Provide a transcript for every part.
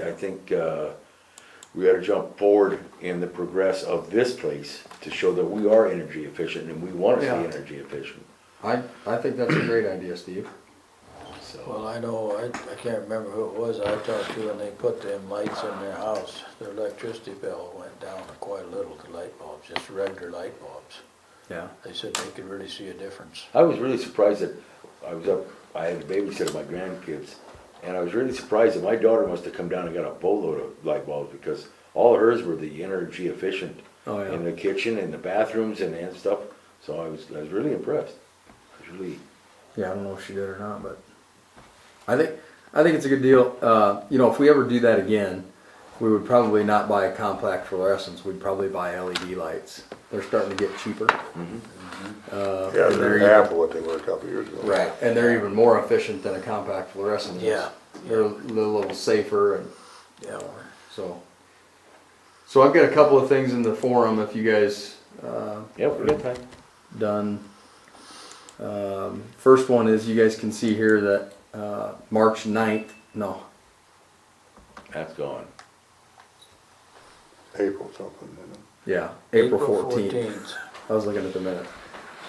I think, uh, we gotta jump forward in the progress of this place to show that we are energy efficient and we wanna Yeah. be energy efficient, I, I think that's a great idea, Steve. so. Well, I know, I, I can't remember who it was I talked to, and they put them lights in their house. Their electricity bill went down quite a little, the light bulbs, just regular light bulbs. Yeah. They said they could really see a difference. I was really surprised that, I was up, I had to babysit my grandkids, and I was really surprised that my daughter must have come down and got a boatload of light bulbs, because all hers were the energy efficient. Oh, yeah. In the kitchen, and the bathrooms and, and stuff, so I was, I was really impressed, I was really. Yeah, I don't know if she did or not, but I think I think it's a good deal. Uh, you know, if we ever do that again, we would probably not buy a compact fluorescence. We'd probably buy LED lights. They're starting to get cheaper. Uh, Yeah, and they're even- half of what they were a couple years ago. right, and they're even more efficient than a compact fluorescent. is. Yeah. they're a little, little safer and Yeah, well, so. So I've got a couple of things in the forum. If you guys uh, Yeah, we got time. done. Um, first one is you guys can see here that uh, March 9th, no, That's gone. April something, you know. yeah, April, 14th. 14th. I was looking at the minute.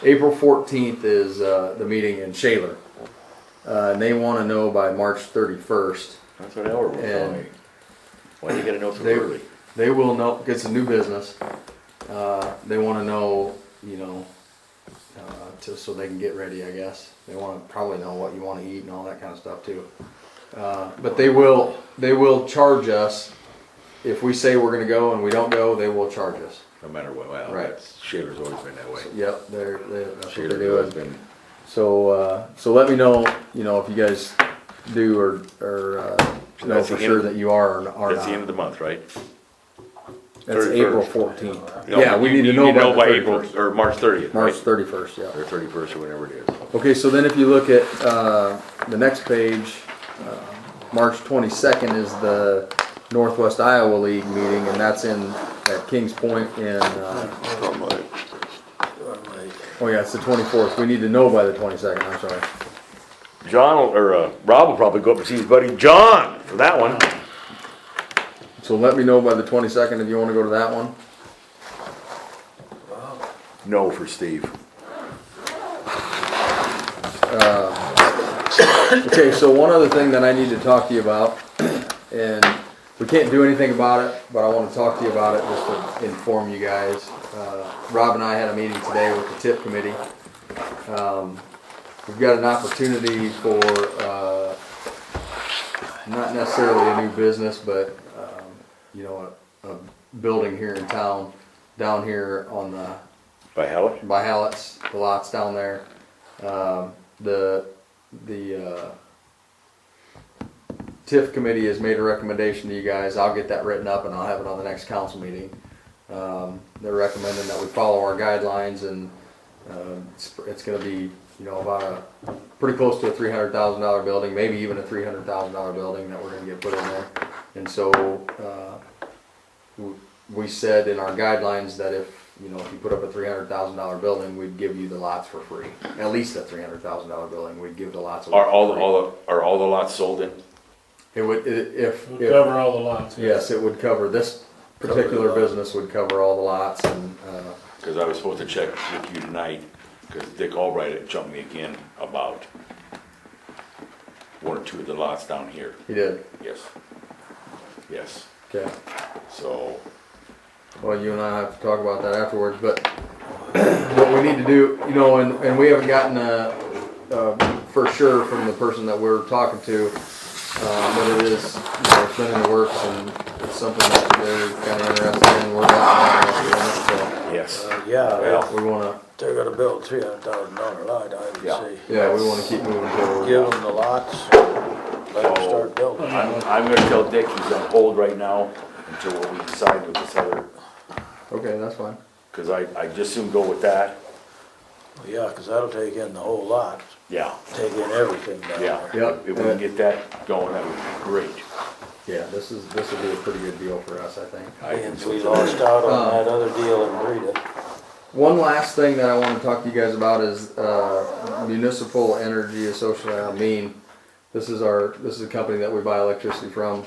April 14th is uh, the meeting in Shaler. Uh, and they want to know by March 31st. That's what Elmer was telling me. And- Why you gotta know so They- early? They will know, it's a new business. Uh, they want to know, you know, uh, to, so they can get ready, I guess. They want to probably know what you want to eat and all that kind of stuff too. Uh, but they will, they will charge us if we say we're going to go and we don't go. They will charge us. No matter what, well, Right. that's, Shaler's always been that way. Yep, they're, they that's what Shaler's they're always doing. been, So, uh, so let me know, you know, if you guys do or, or, uh, So know that's for the sure end- that you are or are that's the end of not. the month, right? That's 31st. April fourteenth. No, Yeah, we you- need to you know by the April, 31st. or March thirtieth, March right? thirty-first, yeah. Or thirty-first, or whenever it is. Okay, so then if you look at, uh, the next page, uh, March twenty-second is the Northwest Iowa League meeting, and that's in, at Kings Point in, uh, Something like, Well, like, oh yeah, it's the twenty-fourth. We need to know by the twenty-second, I'm sorry. John, will- or, uh, Rob will probably go up and see his buddy John for that one. So let me know by the twenty-second if you wanna go to that one. No for Steve. Okay, so one other thing that I need to talk to you about, and we can't do anything about it, but I want to talk to you about it just to inform you guys. Uh, Rob and I had a meeting today with the TIP committee. Um, We've got an opportunity for, uh, not necessarily a new business, but, um, you know, a, a building here in town, down here on the, By Hallett? by Hallett's, the lots down there. Um, the, the, uh, TIF committee has made a recommendation to you guys. I'll get that written up and I'll have it on the next council meeting. Um, they're recommending that we follow our guidelines and, um, it's, it's gonna be, you know, about a, pretty close to a three hundred thousand dollar building, maybe even a three hundred thousand dollar building that we're gonna get put in there. And so, uh, w- we said in our guidelines that if, you know, if you put up a three hundred thousand dollar building, we'd give you the lots for free. At least a three hundred thousand dollar building, we'd give the lots away. Are all, for the free. all, the- are all the lots sold in? It would, i- if, We'll if, cover all the lots. yes, it would cover, this Cover the particular lot. business would cover all the lots and, uh, Cause I was supposed to check with you tonight, cause Dick Albright had jumped me again about one or two of the lots down here. he did, Yes. Yes. okay. So, Well, you and I have to talk about that afterwards, but what we need to do, you know, and, and we haven't gotten a, uh, for sure from the person that we're talking to, uh, but it is, you know, it's been in the works and it's something that they're kinda interested in, we're not interested in yes. uh, Yeah, Well, it, so we wanna, if they're gonna build three hundred thousand dollar lot, I Yeah. would say. yeah, we wanna keep moving forward. Give them the lots, let them So- start building. I'm, I'm gonna tell Dick he's on hold right now until what we decide with this other, Okay, that's fine. cause I, I just soon go with that. Yeah, cause that'll take in the whole lot, Yeah, take in everything down yeah. there. Yep. If we can get that going, that would be great. Yeah, this is, this will be a pretty good deal for us, I think. I And we lost out Uh. on that other deal in Rita. One last thing that I want to talk to you guys about is uh, Municipal Energy Association. I mean, this is our this is a company that we buy electricity from.